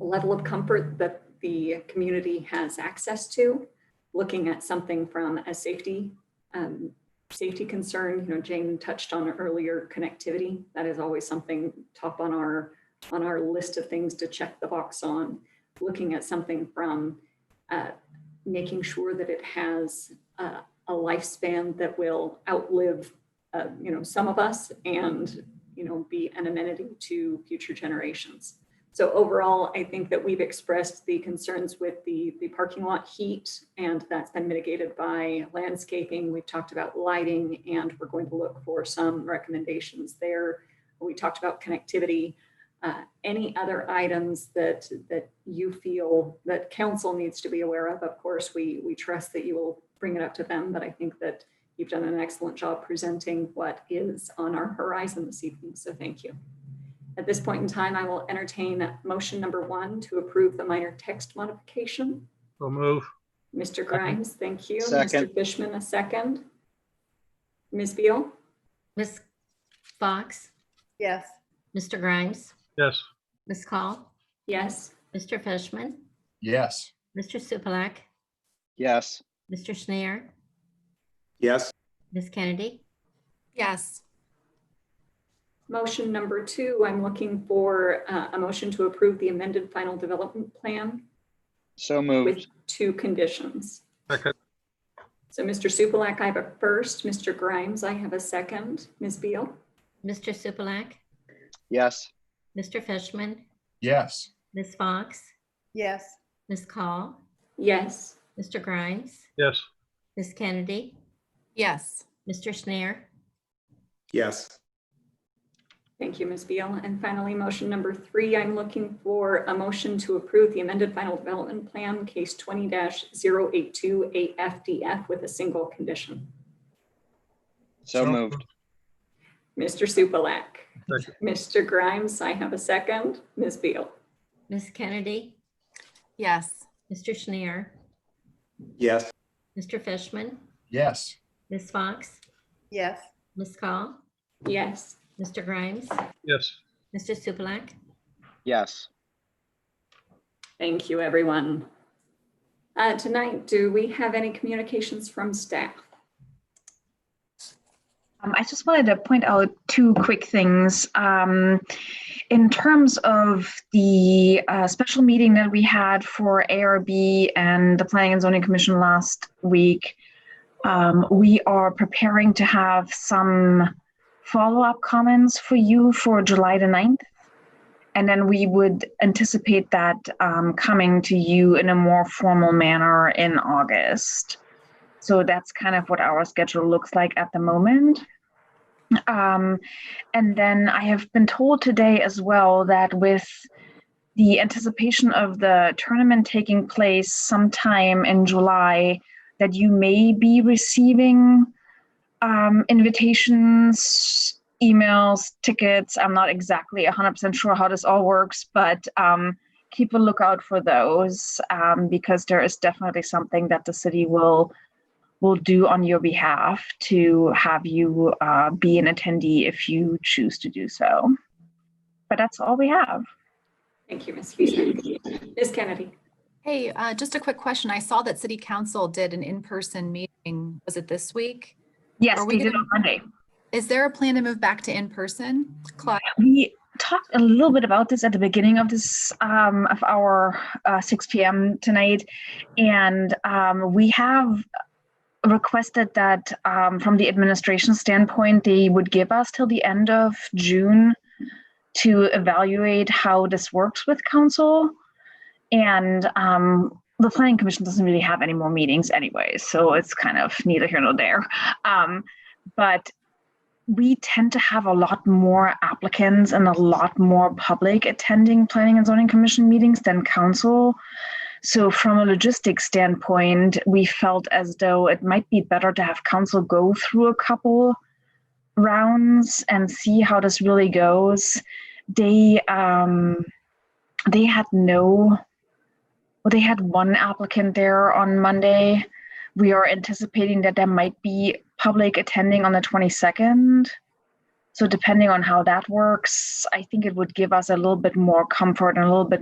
level of comfort that the community has access to, looking at something from a safety, um, safety concern, you know, Jane touched on earlier connectivity. That is always something top on our, on our list of things to check the box on. Looking at something from uh, making sure that it has uh, a lifespan that will outlive, uh, you know, some of us and, you know, be an amenity to future generations. So overall, I think that we've expressed the concerns with the, the parking lot heat, and that's been mitigated by landscaping. We've talked about lighting, and we're going to look for some recommendations there. We talked about connectivity. Uh, Any other items that, that you feel that council needs to be aware of? Of course, we, we trust that you will bring it up to them, but I think that you've done an excellent job presenting what is on our horizon this evening, so thank you. At this point in time, I will entertain motion number one to approve the minor text modification. So move. Mr. Grimes, thank you. Mr. Second. Fishman, a second. Ms. Beal, Ms. Fox, Yes. Mr. Grimes, Yes. Ms. Call, yes. Mr. Fishman, Yes. Mr. Supalack, Yes. Mr. Schneer, yes, Ms. Kennedy, Yes. Motion number two, I'm looking for uh, a motion to approve the amended final development plan So with moved. two conditions. Second. So Mr. Supalack, I have a first. Mr. Grimes, I have a second. Ms. Beal, Mr. Supalack, Yes. Mr. Fishman, Yes. Ms. Fox, Yes. Ms. Call, yes. Mr. Grimes, Yes. Ms. Kennedy, Yes. Mr. Schneer, yes, Thank you, Ms. Beal. And finally, motion number three, I'm looking for a motion to approve the amended final development plan, case twenty 82 AFDF with a single condition. So moved. Mr. Supalack. Second. Mr. Grimes, I have a second. Ms. Beal. Ms. Kennedy, Yes. Mr. Schneer, yes, Mr. Fishman, Yes. Ms. Fox, Yes. Ms. Call, Yes. Mr. Grimes, Yes. Mr. Supalack, Yes. Thank you, everyone. Uh, Tonight, do we have any communications from staff? Um, I just wanted to point out two quick things. Um, in terms of the uh, special meeting that we had for ARB and the Planning and Zoning Commission last week, um, we are preparing to have some follow up comments for you for July the 9th. And then we would anticipate that um, coming to you in a more formal manner in August. So that's kind of what our schedule looks like at the moment. Um, and then I have been told today as well that with the anticipation of the tournament taking place sometime in July, that you may be receiving um, invitations, emails, tickets. I'm not exactly 100% sure how this all works, but um, keep a lookout for those um, because there is definitely something that the city will will do on your behalf to have you uh, be an attendee if you choose to do so. But that's all we have. Thank you, Ms. Huesman. Ms. Kennedy. Hey, uh, just a quick question. I saw that city council did an in-person meeting. Was it this week? Yes, Are we we did gonna- on Monday. Is there a plan to move back to in-person? Cla- We talked a little bit about this at the beginning of this um, of our uh, 6 p.m. tonight, and um, we have requested that um, from the administration standpoint, they would give us till the end of June to evaluate how this works with council, and um, the planning commission doesn't really have any more meetings anyway, so it's kind of neither here nor there. Um, but we tend to have a lot more applicants and a lot more public attending planning and zoning commission meetings than council. So from a logistics standpoint, we felt as though it might be better to have council go through a couple rounds and see how this really goes. They um they had no well, they had one applicant there on Monday we are anticipating that there might be public attending on the 22nd. So depending on how that works, I think it would give us a little bit more comfort and a little bit